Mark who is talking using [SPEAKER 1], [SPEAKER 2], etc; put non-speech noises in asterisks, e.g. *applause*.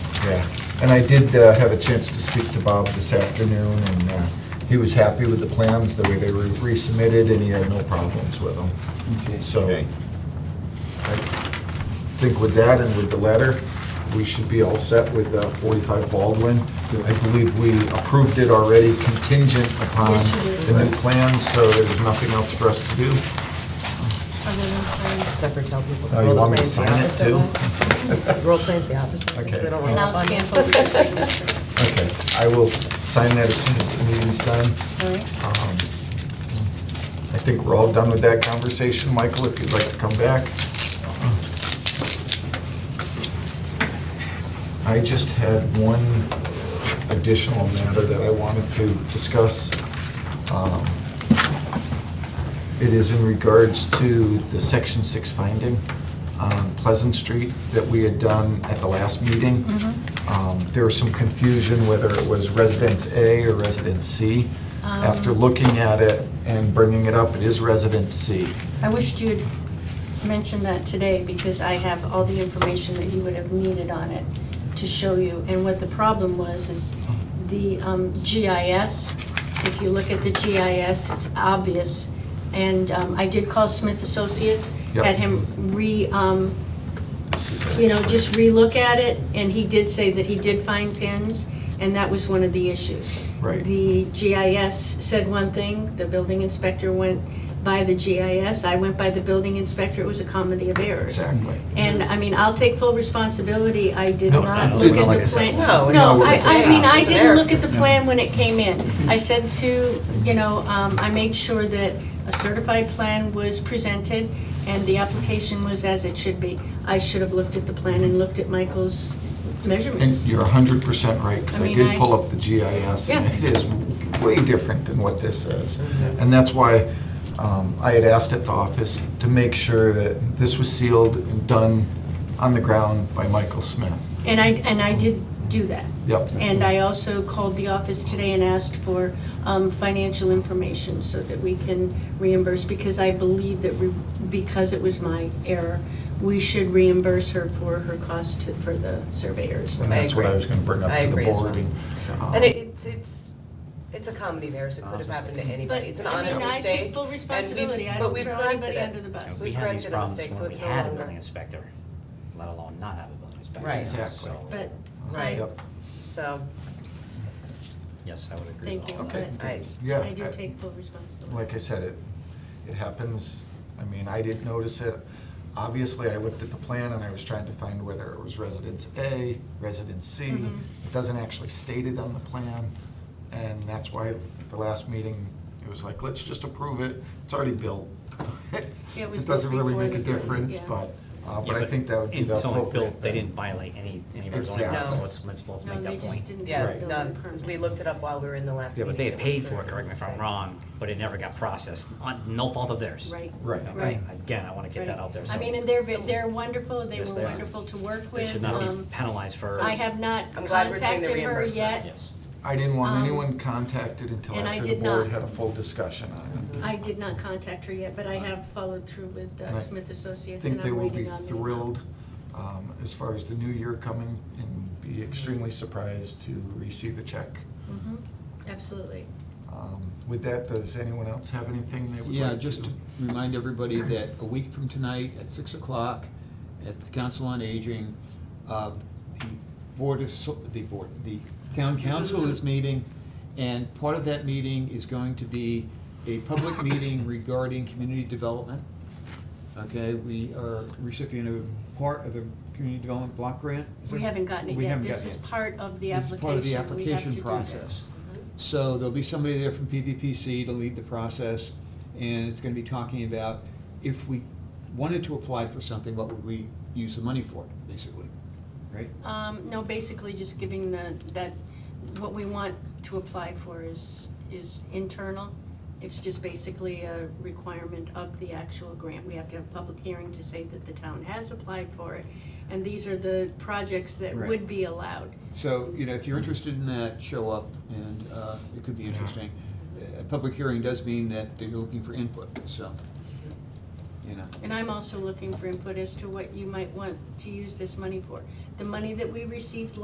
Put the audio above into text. [SPEAKER 1] Yeah, and I did uh, have a chance to speak to Bob this afternoon, and uh, he was happy with the plans, the way they were resubmitted, and he had no problems with them.
[SPEAKER 2] Okay.
[SPEAKER 1] So
[SPEAKER 3] Okay.
[SPEAKER 1] I think with that and with the letter, we should be all set with uh, 45 Baldwin. I believe we approved it already contingent upon
[SPEAKER 4] Yes, you did.
[SPEAKER 1] the new plans, so there's nothing else for us to do.
[SPEAKER 4] Other than sign.
[SPEAKER 5] Except for tell people.
[SPEAKER 1] Oh, you
[SPEAKER 5] roll the
[SPEAKER 1] want me to
[SPEAKER 5] plan's the
[SPEAKER 1] sign it
[SPEAKER 5] opposite
[SPEAKER 1] too?
[SPEAKER 5] way. Roll plan's the opposite, way, so
[SPEAKER 1] Okay.
[SPEAKER 5] they don't roll
[SPEAKER 4] And I'll
[SPEAKER 5] up on you.
[SPEAKER 4] scan for your signature. *laughs*
[SPEAKER 1] Okay, I will sign that as soon as the meeting's done.
[SPEAKER 4] All right.
[SPEAKER 1] Um, I think we're all done with that conversation. Michael, if you'd like to come back. I just had one additional matter that I wanted to discuss. Um, It is in regards to the Section 6 finding on Pleasant Street that we had done at the last meeting.
[SPEAKER 4] Mm-hmm.
[SPEAKER 1] Um, There was some confusion whether it was Residence A or Residence C. After
[SPEAKER 4] Um.
[SPEAKER 1] looking at it and bringing it up, it is Residence C.
[SPEAKER 4] I wished you'd mentioned that today because I have all the information that you would have needed on it to show you. And what the problem was is the um, GIS, if you look at the GIS, it's obvious. And um, I did call Smith Associates,
[SPEAKER 1] Yep.
[SPEAKER 4] had him re, um,
[SPEAKER 1] This is
[SPEAKER 4] you know,
[SPEAKER 1] actually-
[SPEAKER 4] just relook at it, and he did say that he did find pins, and that was one of the issues.
[SPEAKER 1] Right.
[SPEAKER 4] The GIS said one thing, the building inspector went by the GIS, I went by the building inspector, it was a comedy of errors.
[SPEAKER 1] Exactly.
[SPEAKER 4] And, I mean, I'll take full responsibility, I did
[SPEAKER 1] No,
[SPEAKER 4] not
[SPEAKER 1] no,
[SPEAKER 4] look
[SPEAKER 1] it's
[SPEAKER 4] at
[SPEAKER 1] like
[SPEAKER 4] the
[SPEAKER 1] it's
[SPEAKER 4] plan.
[SPEAKER 5] no, it's
[SPEAKER 4] No,
[SPEAKER 5] just
[SPEAKER 4] I,
[SPEAKER 5] a
[SPEAKER 4] I mean,
[SPEAKER 5] mistake.
[SPEAKER 4] I
[SPEAKER 5] It's an
[SPEAKER 4] didn't
[SPEAKER 5] error.
[SPEAKER 4] look at the plan when it came in. I said to, you know, um, I made sure that a certified plan was presented and the application was as it should be. I should have looked at the plan and looked at Michael's
[SPEAKER 1] And
[SPEAKER 4] measurements.
[SPEAKER 1] you're hundred percent right, because
[SPEAKER 4] I
[SPEAKER 1] I
[SPEAKER 4] mean,
[SPEAKER 1] did
[SPEAKER 4] I-
[SPEAKER 1] pull up the GIS, and
[SPEAKER 4] Yeah.
[SPEAKER 1] it is way different than what this is.
[SPEAKER 5] Mm-hmm.
[SPEAKER 1] And that's why um, I had asked at the office to make sure that this was sealed and done on the ground by Michael Smith.
[SPEAKER 4] And I, and I did do that.
[SPEAKER 1] Yep.
[SPEAKER 4] And I also called the office today and asked for um, financial information so that we can reimburse, because I believe that, we- because it was my error, we should reimburse her for her cost to- for the surveyors.
[SPEAKER 1] And
[SPEAKER 5] I
[SPEAKER 1] that's what I
[SPEAKER 5] agree.
[SPEAKER 1] was gonna bring up
[SPEAKER 5] I
[SPEAKER 1] to the
[SPEAKER 5] agree as well.
[SPEAKER 1] board. and,
[SPEAKER 4] So-
[SPEAKER 1] um,
[SPEAKER 5] And it- it's, it's, it's a comedy of errors, it could have
[SPEAKER 1] Oh,
[SPEAKER 5] happened to anybody, it's an
[SPEAKER 4] But, I
[SPEAKER 5] honest
[SPEAKER 4] mean, I
[SPEAKER 5] mistake.
[SPEAKER 4] take full
[SPEAKER 5] and we've-
[SPEAKER 4] responsibility. I
[SPEAKER 5] but
[SPEAKER 4] don't
[SPEAKER 5] we've
[SPEAKER 4] throw
[SPEAKER 5] corrected
[SPEAKER 4] anybody
[SPEAKER 5] it.
[SPEAKER 4] under the bus.
[SPEAKER 5] We
[SPEAKER 6] We had these
[SPEAKER 5] corrected a
[SPEAKER 6] problems
[SPEAKER 5] mistake, so
[SPEAKER 6] when we
[SPEAKER 5] it's no
[SPEAKER 6] had a building
[SPEAKER 5] longer,
[SPEAKER 6] inspector, let alone not have a building inspector.
[SPEAKER 5] Right.
[SPEAKER 1] Exactly.
[SPEAKER 6] So,
[SPEAKER 4] But,
[SPEAKER 5] Right.
[SPEAKER 1] Yep,
[SPEAKER 5] so,
[SPEAKER 6] Yes, I would agree
[SPEAKER 4] thank
[SPEAKER 6] with
[SPEAKER 4] you,
[SPEAKER 6] all that.
[SPEAKER 1] okay. Uh,
[SPEAKER 4] but
[SPEAKER 5] I,
[SPEAKER 1] Yeah.
[SPEAKER 4] I do
[SPEAKER 1] I-
[SPEAKER 4] take full responsibility.
[SPEAKER 1] like I said, it, it happens. I mean, I didn't notice it. Obviously, I looked at the plan and I was trying to find whether it was residence A, residence C.
[SPEAKER 4] Mhm.
[SPEAKER 1] It doesn't actually state it on the plan, and that's why the last meeting, it was like, let's just approve it, it's already built.
[SPEAKER 4] Yeah, it
[SPEAKER 1] *laughs*
[SPEAKER 4] was
[SPEAKER 1] It doesn't really
[SPEAKER 4] before
[SPEAKER 1] make a
[SPEAKER 4] the building,
[SPEAKER 1] difference,
[SPEAKER 4] yeah.
[SPEAKER 1] but, uh,
[SPEAKER 6] Yeah,
[SPEAKER 1] but I think that would be
[SPEAKER 6] and
[SPEAKER 1] the
[SPEAKER 6] someone
[SPEAKER 1] appropriate
[SPEAKER 6] built- They
[SPEAKER 1] thing.
[SPEAKER 6] didn't violate any, any of our zoning
[SPEAKER 1] Exactly.
[SPEAKER 6] laws, so
[SPEAKER 5] No.
[SPEAKER 6] it's, it's supposed to
[SPEAKER 4] No,
[SPEAKER 6] make
[SPEAKER 4] they
[SPEAKER 6] that
[SPEAKER 4] just didn't
[SPEAKER 6] point.
[SPEAKER 4] get a
[SPEAKER 5] yeah,
[SPEAKER 1] Right.
[SPEAKER 4] building
[SPEAKER 5] done, because we
[SPEAKER 4] permit.
[SPEAKER 5] looked it up while we were in the last
[SPEAKER 6] Yeah,
[SPEAKER 5] meeting.
[SPEAKER 6] but they had
[SPEAKER 5] and was
[SPEAKER 6] paid for it,
[SPEAKER 5] correct,
[SPEAKER 6] correct me
[SPEAKER 5] was
[SPEAKER 6] if
[SPEAKER 5] the
[SPEAKER 6] I'm
[SPEAKER 5] same.
[SPEAKER 6] wrong, but it never got processed, on, no fault of theirs.
[SPEAKER 4] Right.
[SPEAKER 1] Right.
[SPEAKER 6] Okay.
[SPEAKER 4] Right.
[SPEAKER 6] Again, I wanna get that
[SPEAKER 4] Right.
[SPEAKER 6] out there, so.
[SPEAKER 4] I mean, and they're, they're wonderful, they
[SPEAKER 6] Yes,
[SPEAKER 4] were
[SPEAKER 6] they are.
[SPEAKER 4] wonderful to work
[SPEAKER 6] They
[SPEAKER 4] with.
[SPEAKER 6] should not be
[SPEAKER 4] um,
[SPEAKER 6] penalized for.
[SPEAKER 4] I have not
[SPEAKER 5] I'm glad we're doing the
[SPEAKER 4] contacted her
[SPEAKER 5] reimbursement.
[SPEAKER 4] yet.
[SPEAKER 6] Yes.
[SPEAKER 1] I didn't want
[SPEAKER 4] Um,
[SPEAKER 1] anyone contacted until
[SPEAKER 4] and I
[SPEAKER 1] after the board
[SPEAKER 4] did not. Mm-hmm.
[SPEAKER 1] had a full discussion on it.
[SPEAKER 4] I did not contact her yet, but I have followed through with uh,
[SPEAKER 1] Right.
[SPEAKER 4] Smith
[SPEAKER 1] I
[SPEAKER 4] Associates and
[SPEAKER 1] think they
[SPEAKER 4] I'm
[SPEAKER 1] will be
[SPEAKER 4] waiting on the. uh,
[SPEAKER 1] thrilled um, as far as the new year coming and be extremely surprised to receive a check.
[SPEAKER 4] Mhm, Absolutely.
[SPEAKER 1] Um, With that, does anyone else have anything they would like to?
[SPEAKER 2] Yeah, just to remind everybody that a week from tonight at six o'clock at the Council on Aging, uh, the Board of, So- the Board, the Town Council is meeting, and part of that meeting is going to be
[SPEAKER 1] *laughs*
[SPEAKER 2] a public meeting regarding community development. Okay, we are recipient of part of a community development block grant. is
[SPEAKER 4] We
[SPEAKER 2] it?
[SPEAKER 4] haven't gotten it
[SPEAKER 2] We
[SPEAKER 4] yet.
[SPEAKER 2] haven't
[SPEAKER 4] This
[SPEAKER 2] gotten
[SPEAKER 4] is
[SPEAKER 2] it.
[SPEAKER 4] part of the
[SPEAKER 2] This
[SPEAKER 4] application.
[SPEAKER 2] is part of the
[SPEAKER 4] We have
[SPEAKER 2] application
[SPEAKER 4] to do this.
[SPEAKER 2] process. So there'll be somebody there from PVPC to lead the process, and it's gonna be talking about if we wanted to apply for something, what would we use the money for, basically, right?
[SPEAKER 4] Um, no, basically just giving the, that, what we want to apply for is, is internal. It's just basically a requirement of the actual grant. We have to have a public hearing to say that the town has applied for it. And these are the projects that
[SPEAKER 2] Right.
[SPEAKER 4] would be allowed.
[SPEAKER 2] So, you know, if you're interested in that, show up, and uh, it could be interesting. A public hearing does mean that they're looking for input, so, you know.
[SPEAKER 4] And I'm also looking for input as to what you might want to use this money for. The money that we received